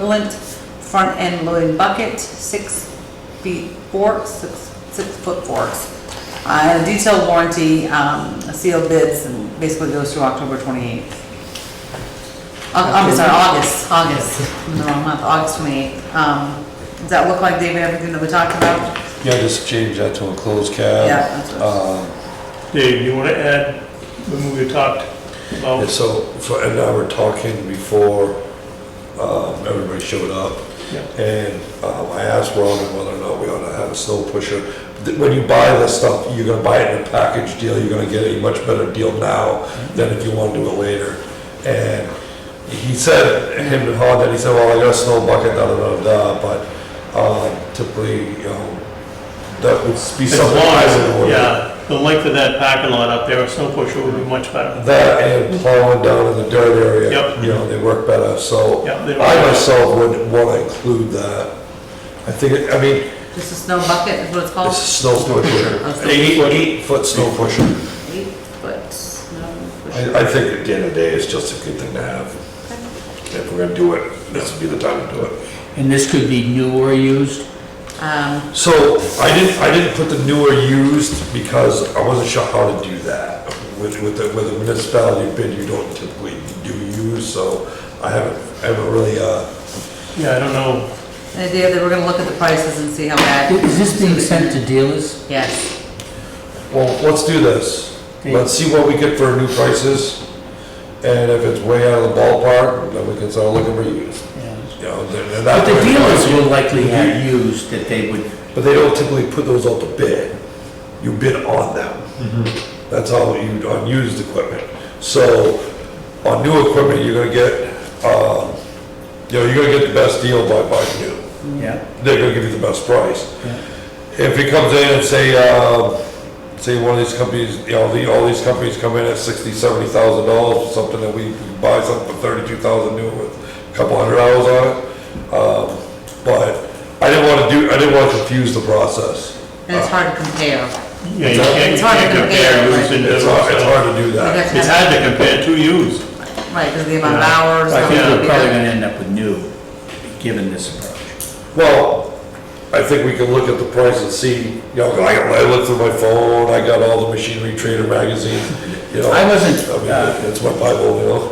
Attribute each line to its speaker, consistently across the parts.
Speaker 1: equivalent front end loading bucket, six feet forks, six, six foot forks. Uh, detailed warranty, um, sealed bids, and basically goes through October twenty-eighth. Uh, I'm sorry, August, August, I'm in the wrong month, August twenty-eighth. Um, does that look like, David, everything that we talked about?
Speaker 2: Yeah, just change that to a closed cab.
Speaker 1: Yeah, that's what-
Speaker 2: Um,
Speaker 3: Dave, you want to add, when we talked about,
Speaker 2: And so, for- and I were talking before um, everybody showed up,
Speaker 3: Yeah.
Speaker 2: and um, I asked Robin whether or not we ought to have a snow pusher. Th- When you buy this stuff, you're gonna buy it in a package deal, you're gonna get a much better deal now than if you want to do it later. And he said, him and Honda, he said, well, I got a snow bucket, da, da, da, da, but um, typically, you know, that would be
Speaker 3: as
Speaker 2: something I would
Speaker 3: long as,
Speaker 2: order.
Speaker 3: yeah, the length of that parking lot up there, a snow pusher would be much better.
Speaker 2: That and plowing down in the dirt area.
Speaker 3: Yep.
Speaker 2: You know, they work better, so
Speaker 3: Yep, they work
Speaker 2: I
Speaker 3: better.
Speaker 2: myself would want to include that. I think, it- I mean,
Speaker 1: Just a snow bucket is what it's called?
Speaker 2: it's a snow
Speaker 1: A
Speaker 2: pusher,
Speaker 1: snow
Speaker 2: Oh. eight, eight foot snow pusher.
Speaker 1: Eight foot snow pusher.
Speaker 2: I, I think at the end of the day, it's just a good thing to have. If we're gonna do it, this would be the time to do it.
Speaker 4: And this could be new or used?
Speaker 1: Um,
Speaker 2: So I didn't, I didn't put the newer used because I wasn't sure how to do that. With, with the, with the municipality bid, you don't typically do used, so I haven't, I haven't really, uh,
Speaker 3: Yeah, I don't know,
Speaker 1: the idea that we're gonna look at the prices and see how bad,
Speaker 4: Is this being sent to dealers?
Speaker 1: yes.
Speaker 2: Well, let's do this. Let's see what we get for new prices, and if it's way out of the ballpark, then we can start looking for used. You know, they're- they're not
Speaker 4: But the
Speaker 2: very
Speaker 4: dealers
Speaker 2: pricey,
Speaker 4: will likely have used that they would,
Speaker 2: But they don't typically put those out to bid. You bid on them.
Speaker 4: Mm-hmm.
Speaker 2: That's all you, on used equipment. So, on new equipment, you're gonna get, uh, you know, you're gonna get the best deal by buying new.
Speaker 4: yeah.
Speaker 2: they're gonna give you the best price. If it comes in and say, uh, say one of these companies, you know, the, all these companies come in at sixty, seventy thousand dollars for something that we buy something for thirty-two thousand new with a couple hundred hours on it. Um, but I didn't wanna do, I didn't wanna confuse the process.
Speaker 1: And it's hard to compare.
Speaker 3: yeah, you can't, you
Speaker 1: It's hard to
Speaker 3: can't
Speaker 1: compare,
Speaker 3: compare used
Speaker 1: right.
Speaker 3: and new,
Speaker 2: It's hard, it's
Speaker 3: so.
Speaker 2: hard to do
Speaker 1: We'd
Speaker 2: that.
Speaker 1: have to
Speaker 3: It's
Speaker 1: have-
Speaker 3: hard to compare two used.
Speaker 1: Right, because the amount of
Speaker 3: Yeah.
Speaker 1: hours.
Speaker 3: I
Speaker 4: I
Speaker 1: how
Speaker 4: think
Speaker 1: many
Speaker 4: we're
Speaker 1: people-
Speaker 4: probably gonna end up with new, given this approach.
Speaker 2: Well, I think we can look at the price and see, you know, I, I looked through my phone, I got all the machinery trader magazines, you know.
Speaker 4: I wasn't,
Speaker 2: I mean,
Speaker 4: uh,
Speaker 2: that's my Bible, you know.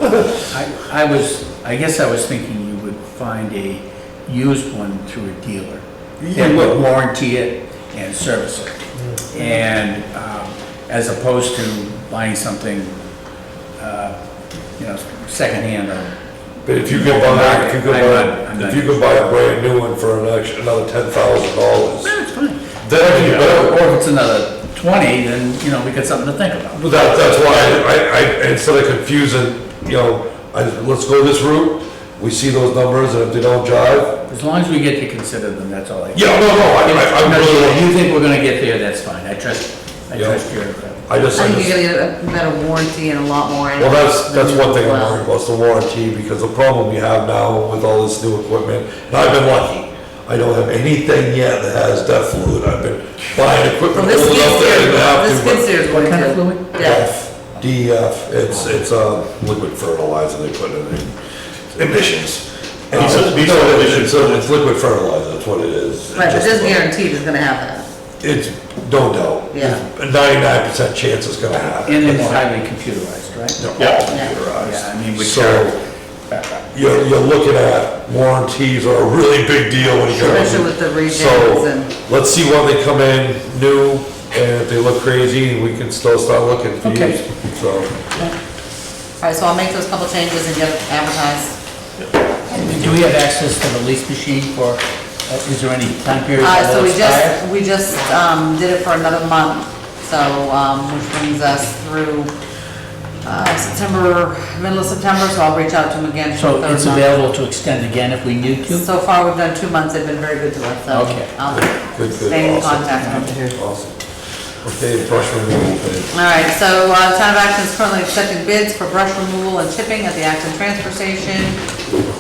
Speaker 4: I, I was, I guess I was thinking you would find a used one through a dealer. They would warranty it and service it. And, um, as opposed to buying something, uh, you know, secondhand or
Speaker 2: But if you could buy, if you could buy, if you could buy a brand new one for an extra, another ten thousand dollars, then you
Speaker 4: Or
Speaker 2: better.
Speaker 4: or if it's another 20, then, you know, we got something to think about.
Speaker 2: But that, that's why I, I, instead of confusing, you know, I, let's go this route, we see those numbers, and if they don't jive,
Speaker 4: As long as we get to consider them, that's all I.
Speaker 2: yeah, no, no, I, I, I'm
Speaker 4: No,
Speaker 2: really,
Speaker 4: you- You think we're gonna get there, that's fine, I trust, I
Speaker 2: Yeah.
Speaker 4: trust your. uh,
Speaker 2: I just,
Speaker 1: I
Speaker 2: I
Speaker 1: think
Speaker 2: just,
Speaker 1: you're gonna get a better warranty and a lot more.
Speaker 2: well, that's, that's one thing I'm
Speaker 1: Well,
Speaker 2: worried about, is the warranty, because the problem you have now with all this new equipment, and I've been lucky, I don't have anything yet that has death fluid, I've been buying
Speaker 1: Well,
Speaker 2: equipment
Speaker 1: this
Speaker 2: old enough that I didn't have to.
Speaker 1: gets, this
Speaker 2: but-
Speaker 1: gets there is
Speaker 4: What
Speaker 1: what
Speaker 4: kind of
Speaker 1: it
Speaker 4: fluid?
Speaker 1: did. Yeah.
Speaker 2: DEF, it's, it's a liquid fertilizer they put in the emissions. And
Speaker 3: Diesel-
Speaker 2: it's-
Speaker 3: diesel
Speaker 2: no,
Speaker 3: emissions.
Speaker 2: It's a- it's liquid fertilizer, that's what it is.
Speaker 1: Right, but
Speaker 2: Just-
Speaker 1: this guaranteed is gonna have that.
Speaker 2: It's, no doubt.
Speaker 1: Yeah.
Speaker 2: Ninety-nine percent chance it's gonna happen.
Speaker 4: And it's highly computerized, right?
Speaker 2: They're all
Speaker 1: Yeah.
Speaker 2: computerized.
Speaker 4: Yeah, I mean, which
Speaker 2: So, you're, you're looking at warranties are a really big deal when you go.
Speaker 1: Especially with the regions and-
Speaker 2: So, let's see when they come in new, and if they look crazy, we can still start looking for
Speaker 4: Okay.
Speaker 2: used, so.
Speaker 1: All right, so I'll make those couple changes and get it advertised.
Speaker 4: Do we have access to the lease machine for, uh, is there any time period
Speaker 1: Uh,
Speaker 4: that
Speaker 1: so
Speaker 4: will
Speaker 1: we
Speaker 4: expire?
Speaker 1: just, we just, um, did it for another month, so, um, which brings us through, uh, September, middle of September, so I'll reach out to them again for the
Speaker 4: So
Speaker 1: third
Speaker 4: it's
Speaker 1: month.
Speaker 4: available to extend again if we need to?
Speaker 1: So far, we've done two months, they've been very good to us, so.
Speaker 4: Okay.
Speaker 1: I'll
Speaker 2: Good, good,
Speaker 1: stay in
Speaker 2: awesome.
Speaker 1: contact with them.
Speaker 2: Awesome. Okay, brush removal, okay.
Speaker 1: All right, so uh, Town of Acton is currently accepting bids for brush removal and chipping at the Acton Transfer Station.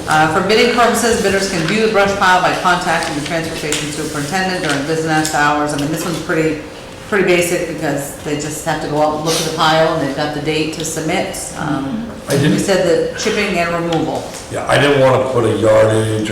Speaker 1: Uh, For bidding purposes, bidders can view the brush pile by contacting the transfer station superintendent during business hours. I mean, this one's pretty, pretty basic because they just have to go out and look at the pile and they've got the date to submit. Um,
Speaker 2: I didn't-
Speaker 1: We said that chipping and removal.
Speaker 2: Yeah, I didn't wanna put a yardage